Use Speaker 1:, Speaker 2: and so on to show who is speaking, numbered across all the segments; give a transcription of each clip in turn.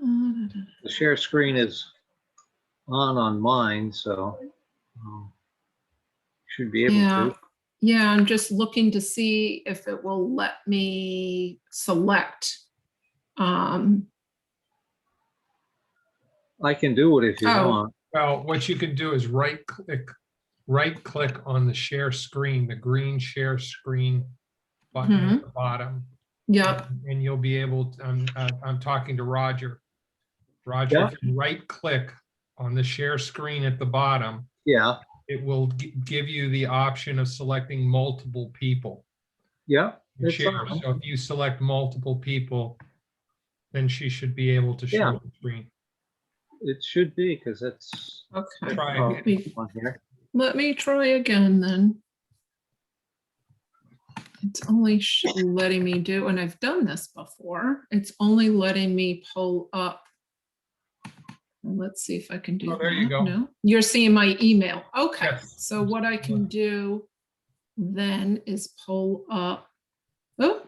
Speaker 1: The share screen is on on mine, so um, should be able
Speaker 2: Yeah.
Speaker 1: to.
Speaker 2: Yeah, I'm just looking to see if it will let me select. Um,
Speaker 1: I can do it if you
Speaker 2: Oh.
Speaker 1: want.
Speaker 3: Well, what you can do is right click, right click on the share screen, the green share screen button at the bottom.
Speaker 2: yep,
Speaker 3: And you'll be able, to- I'm, uh, I'm talking to Roger. Roger,
Speaker 1: Yeah.
Speaker 3: if you right click on the share screen at the bottom,
Speaker 1: Yeah,
Speaker 3: it will gi- give you the option of selecting multiple people.
Speaker 1: yeah,
Speaker 3: to
Speaker 1: That's
Speaker 3: share.
Speaker 1: fine.
Speaker 3: So if you select multiple people, then she should be able to
Speaker 1: Yeah.
Speaker 3: share the screen.
Speaker 1: it should be because it's
Speaker 2: okay.
Speaker 3: Try
Speaker 1: oh,
Speaker 3: again.
Speaker 1: on here.
Speaker 2: Let me try again then. It's only sh- letting me do, and I've done this before, it's only letting me pull up. Let's see if I can do
Speaker 3: Oh,
Speaker 2: that.
Speaker 3: there you go.
Speaker 2: No, You're seeing my email. Okay,
Speaker 3: Yes.
Speaker 2: so what I can do then is pull up. Oh,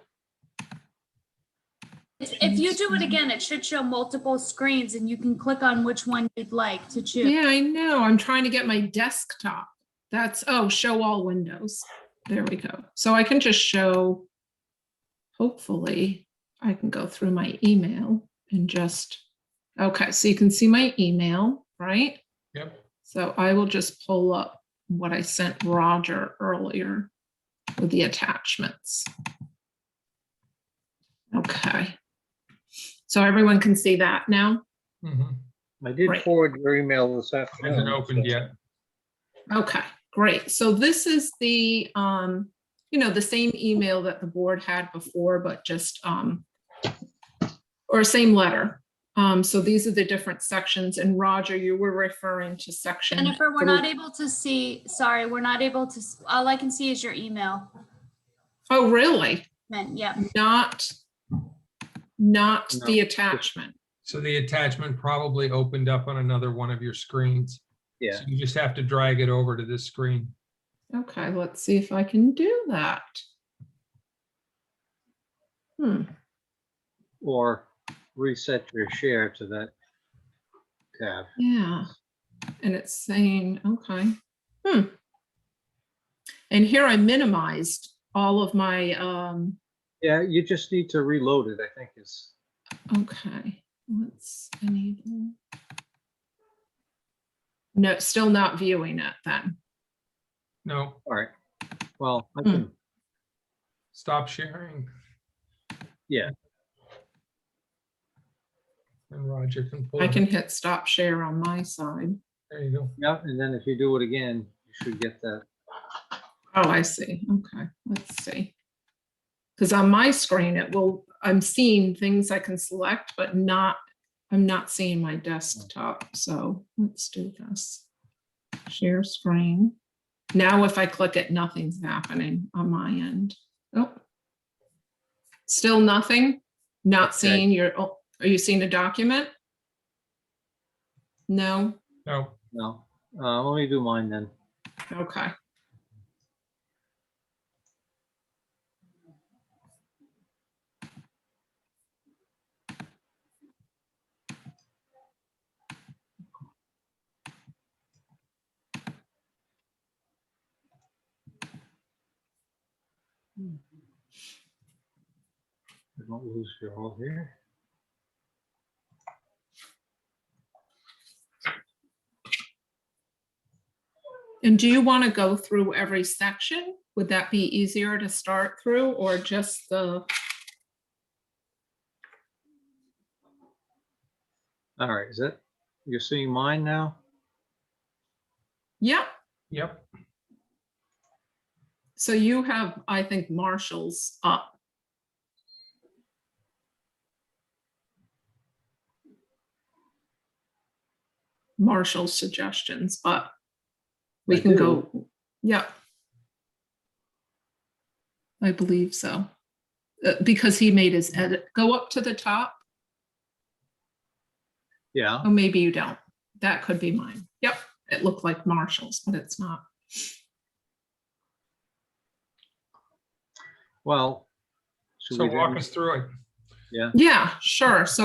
Speaker 4: If if you do it again, it should show multiple screens and you can click on which one you'd like to choose.
Speaker 2: yeah, I know. I'm trying to get my desktop. That's, oh, show all windows. There we go. So I can just show, hopefully, I can go through my email and just, okay, so you can see my email, right?
Speaker 3: Yep.
Speaker 2: So I will just pull up what I sent Roger earlier with the attachments. Okay. So everyone can see that now?
Speaker 3: Mhm.
Speaker 1: I did
Speaker 2: Right.
Speaker 1: forward your email this afternoon.
Speaker 3: Hasn't opened
Speaker 1: so-
Speaker 3: yet.
Speaker 2: Okay, great. So this is the, um, you know, the same email that the board had before, but just, um, or same letter. Um, so these are the different sections and Roger, you were referring to section.
Speaker 4: Jennifer, we're
Speaker 2: three-
Speaker 4: not able to see, sorry, we're not able to, s- all I can see is your email.
Speaker 2: Oh, really?
Speaker 4: Man, yeah.
Speaker 2: Not, not
Speaker 1: No.
Speaker 2: the attachment.
Speaker 3: So the attachment probably opened up on another one of your screens.
Speaker 1: Yeah,
Speaker 3: So You just have to drag it over to this screen.
Speaker 2: Okay, let's see if I can do that. Hmm,
Speaker 1: or reset your share to that tab.
Speaker 2: yeah. And it's saying, okay, hmm. And here I minimized all of my, um,
Speaker 1: Yeah, you just need to reload it, I think is,
Speaker 2: okay, let's enable. No, still not viewing it then.
Speaker 3: No,
Speaker 1: all right. Well, I
Speaker 2: Hmm.
Speaker 1: can,
Speaker 3: stop sharing.
Speaker 1: Yeah.
Speaker 3: And Roger can pull.
Speaker 2: I
Speaker 3: it.
Speaker 2: can hit stop share on my side.
Speaker 3: There you go.
Speaker 1: yeah, and then if you do it again, you should get that.
Speaker 2: Oh, I see. Okay, let's see. Because on my screen, it will, I'm seeing things I can select, but not, I'm not seeing my desktop. So let's do this. Share screen. Now if I click it, nothing's happening on my end. Oh. Still nothing? Not
Speaker 1: Okay.
Speaker 2: seeing your, oh, are you seeing a document? No?
Speaker 3: No,
Speaker 1: No, uh, let me do mine then.
Speaker 2: Okay.
Speaker 1: I Don't lose your all here.
Speaker 2: And do you want to go through every section? Would that be easier to start through or just the,
Speaker 1: All right, is that, you're seeing mine now?
Speaker 2: yeah,
Speaker 3: yep,
Speaker 2: so you have, I think, Marshall's up. Marshall's suggestions, but we
Speaker 1: I
Speaker 2: can
Speaker 1: do.
Speaker 2: go, yeah. I believe so. Uh, Because he made his edit, go up to the top.
Speaker 1: Yeah,
Speaker 2: Oh, maybe you don't. That could be mine. Yep, it looked like Marshall's, but it's not.
Speaker 1: well. should
Speaker 3: so
Speaker 1: we do-
Speaker 3: walk us through it.
Speaker 2: Yeah, sure. So